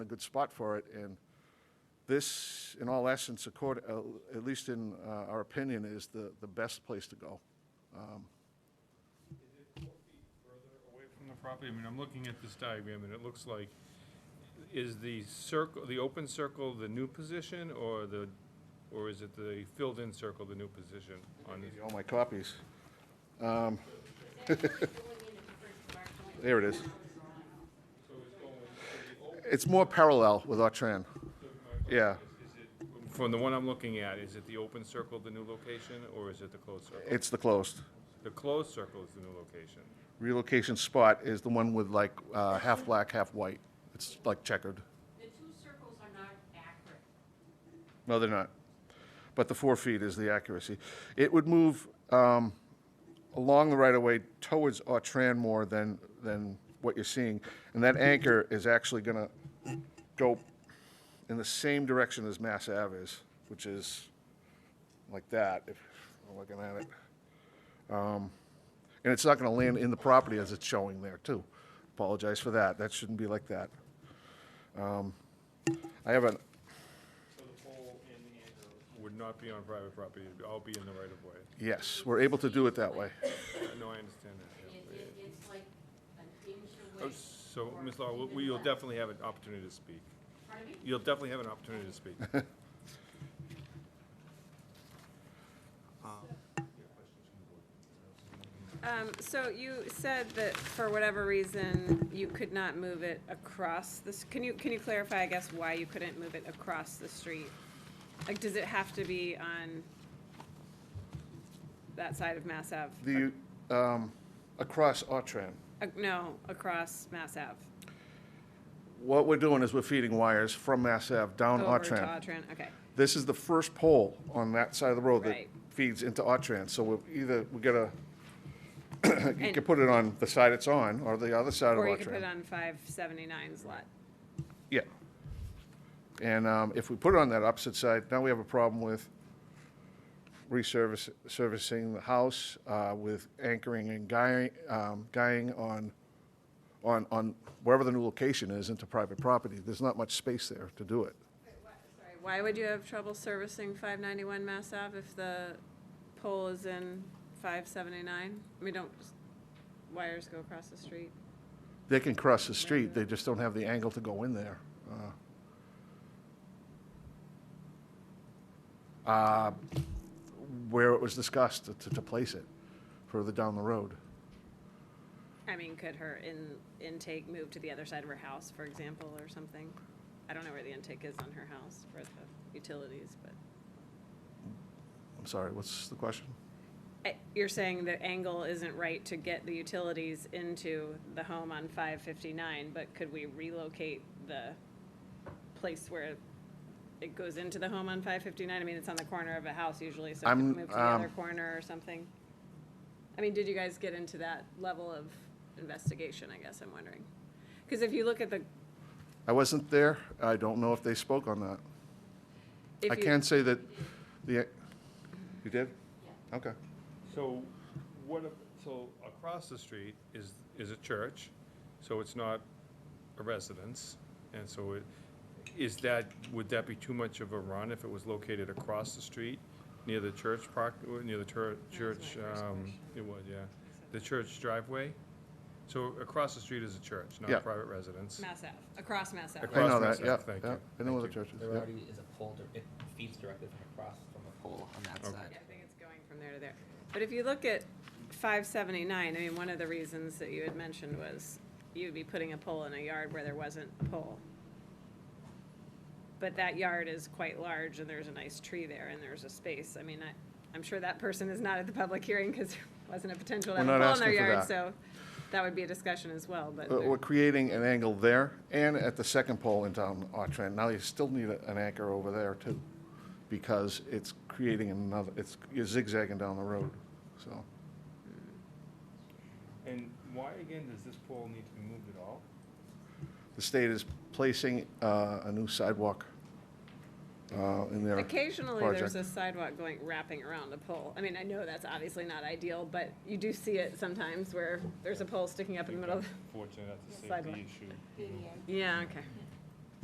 a good spot for it, and this, in all essence, accord, uh, at least in uh, our opinion, is the, the best place to go. Is it four feet further away from the property? I mean, I'm looking at this diagram, and it looks like, is the circle, the open circle the new position, or the, or is it the filled-in circle the new position on this? All my copies. Um, Well, There it is. It's more parallel with Autran. Yeah, From the one I'm looking at, is it the open circle the new location, or is it the closed circle? it's the closed. The closed circle is the new location. Relocation spot is the one with like uh, half black, half white. It's like checkered. The two circles are not accurate. No, they're not. But the four feet is the accuracy. It would move um, along the right-of-way towards Autran more than, than what you're seeing. And that anchor is actually going to go in the same direction as Mass Ave is, which is like that, if I'm looking at it. Um, And it's not going to land in the property as it's showing there, too. Apologize for that. That shouldn't be like that. Um, I have an, So the pole and the anchor would not be on private property, it'd all be in the right-of-way. Yes, we're able to do it that way. I know, I understand that, It, yeah. it, it's like an inch Oh, away. So, Ms. Law, we- we- you'll definitely have an opportunity to speak. Pardon me? You'll definitely have an opportunity to speak. Um, so you said that for whatever reason, you could not move it across this, can you, can you clarify, I guess, why you couldn't move it across the street? Like, does it have to be on that side of Mass Ave? The, um, across Autran, Uh, No, across Mass Ave. what we're doing is we're feeding wires from Mass Ave down Over to Autran. Autran, okay. This is the first pole on that side of the road that Right. feeds into Autran, so we're either, we gotta, you And- can put it on the side it's on, or the other side of Autran. Or you could put it on five seventy-nine's lot. Yeah. And um, if we put it on that opposite side, now we have a problem with resurface, servicing the house uh, with anchoring and guying, um, guying on, on, on wherever the new location is into private property. There's not much space there to do it. Sorry, Why would you have trouble servicing five ninety-one Mass Ave if the pole is in five seventy-nine? I mean, don't s- wires go across the street? They can cross the street, they just don't have the angle to go in there. Uh, uh, Where it was discussed to, to place it further down the road. I mean, could her in, intake move to the other side of her house, for example, or something? I don't know where the intake is on her house for the utilities, but, I'm sorry, what's the question? Eh, you're saying the angle isn't right to get the utilities into the home on five fifty-nine, but could we relocate the place where it goes into the home on five fifty-nine? I mean, it's on the corner of a house usually, so it could I'm- move to the um, other corner or something? I mean, did you guys get into that level of investigation, I guess I'm wondering? Because if you look at the I wasn't there. I don't know if they spoke on that. If I you- can say that the, you did? Okay. So what, ab- so across the street is, is a church, so it's not a residence. And so it, is that, would that be too much of a run if it was located across the street near the church park, or near the tur- church, first um, it was, yeah, the church driveway? So across the street is a church, not Yeah. a private residence. Mass Ave, across Mass Ave. I know Cross that, yeah, myself, thank yeah. you. I know Thank where the you. church is, There yeah. already is a pole, dir- it feeds directly from across from a pole on that Okay. Yeah, side. I think it's going from there to there. But if you look at five seventy-nine, I mean, one of the reasons that you had mentioned was you'd be putting a pole in a yard where there wasn't a pole. But that yard is quite large and there's a nice tree there and there's a space. I mean, I, I'm sure that person is not at the public hearing because there wasn't a potential to We're have a not pole in their asking for that. yard, so that would be a discussion as well, but. Uh, there- We're creating an angle there and at the second pole in town, Autran. Now you still need a- an anchor over there too, because it's creating another, it's, you're zigzagging down the road, so. And why again does this pole need to be moved at all? The state is placing uh, a new sidewalk uh, in their Occasionally, project. there's a sidewalk going, wrapping around a pole. I mean, I know that's obviously not ideal, but you do see it Типа, sometimes where there's a pole sticking up in the middle of, Fortunate that's a Sidewalk. safety issue. yeah, okay.